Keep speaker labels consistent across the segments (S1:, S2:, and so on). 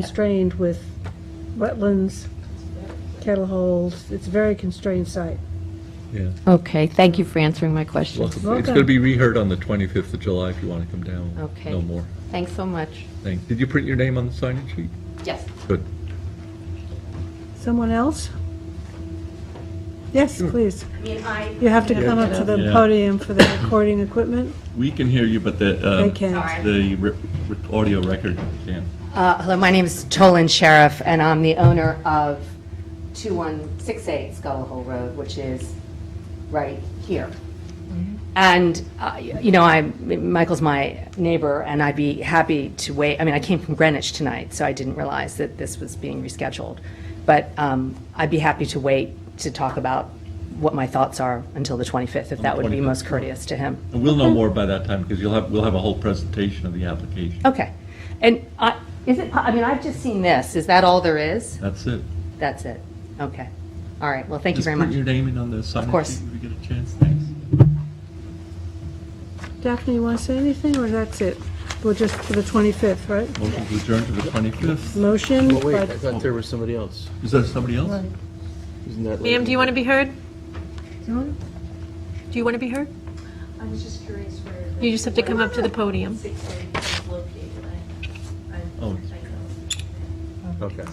S1: constrained with wetlands, cattle holes. It's a very constrained site.
S2: Yeah,
S3: Okay, thank you for answering my question.
S2: welcome. It's
S1: Welcome.
S2: going to be reheard on the 25th of July if you want to come down.
S3: Okay.
S2: No more.
S3: Thanks so much.
S2: Thanks. Did you print your name on the sign-in sheet?
S3: Yes.
S2: Good.
S1: Someone else? Yes, please.
S4: I mean, I,
S1: You have to come up to the
S5: Yeah.
S1: podium for the recording equipment.
S5: We can hear you, but the,
S1: They
S5: um,
S1: can't.
S4: Sorry.
S5: the re- re- audio record can't.
S3: Uh, Hello, my name is Tolan Sheriff, and I'm the owner of 2168 Scuttle Hole Road, which is right here. And, uh, you know, I, Michael's my neighbor, and I'd be happy to wait, I mean, I came from Greenwich tonight, so I didn't realize that this was being rescheduled. But um, I'd be happy to wait to talk about what my thoughts are until the 25th, if that would be
S5: 25th.
S3: most courteous to him.
S5: And we'll know more by that time, because you'll have, we'll have a whole presentation of the application.
S3: Okay. And I, is it, I mean, I've just seen this. Is that all there is?
S5: That's it.
S3: That's it? Okay. All right. Well, thank you
S5: Just
S3: very
S5: put
S3: much.
S5: your name in on the sign-in
S3: course.
S5: sheet if you get a chance, thanks.
S1: Daphne, you want to say anything, or that's it? We're just for the 25th, right?
S5: Motion to adjourn to the 25th.
S1: Motion
S6: Well, wait,
S1: by
S6: I thought there was somebody else.
S5: Is there somebody else?
S6: Isn't that?
S7: Ma'am, do you want to be heard? Do you want to be heard?
S4: I was just curious where.
S7: You just have to come up to the podium.
S4: Six eight is located, I, I.
S5: Oh.
S4: I know.
S2: Okay.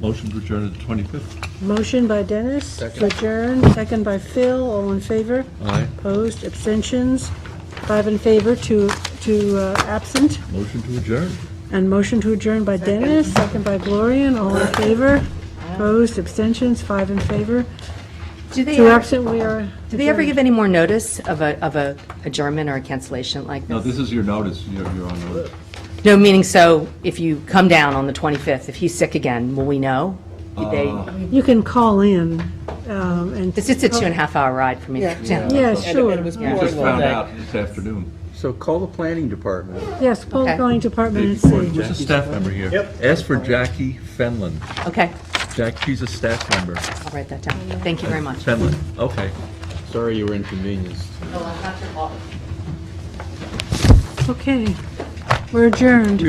S5: Motion to adjourn to the 25th.
S1: Motion by Dennis to adjourn, second by Phil, all in favor?
S5: Aye.
S1: Opposed, abstentions, five in favor, two, two uh, absent,
S5: Motion to adjourn.
S1: and motion to adjourn by Dennis, second by Gloria, and all in favor? Opposed, abstentions, five in favor,
S3: Do they,
S1: two
S3: ever-
S1: absent, we are.
S3: do they ever give any more notice of a, of a adjournment or a cancellation like
S5: No,
S3: this?
S5: this is your notice, you're, you're on notice.
S3: No, meaning so if you come down on the 25th, if he's sick again, will we know? Did
S5: Uh.
S3: they,
S1: You can call in, um, and,
S3: it's just a two and a half hour ride for me to come down.
S1: yeah, sure.
S5: We just found out this afternoon.
S6: So call the planning department.
S1: Yes, Paul
S3: Okay.
S1: Going Department and see.
S5: There's a staff member here. Yep.
S2: Ask for Jackie Fenlon.
S3: Okay,
S2: Jack, she's a staff member.
S3: I'll write that down. Thank you very much.
S2: Fenlon, okay.
S6: Sorry you were inconvenienced.
S1: Okay, we're adjourned.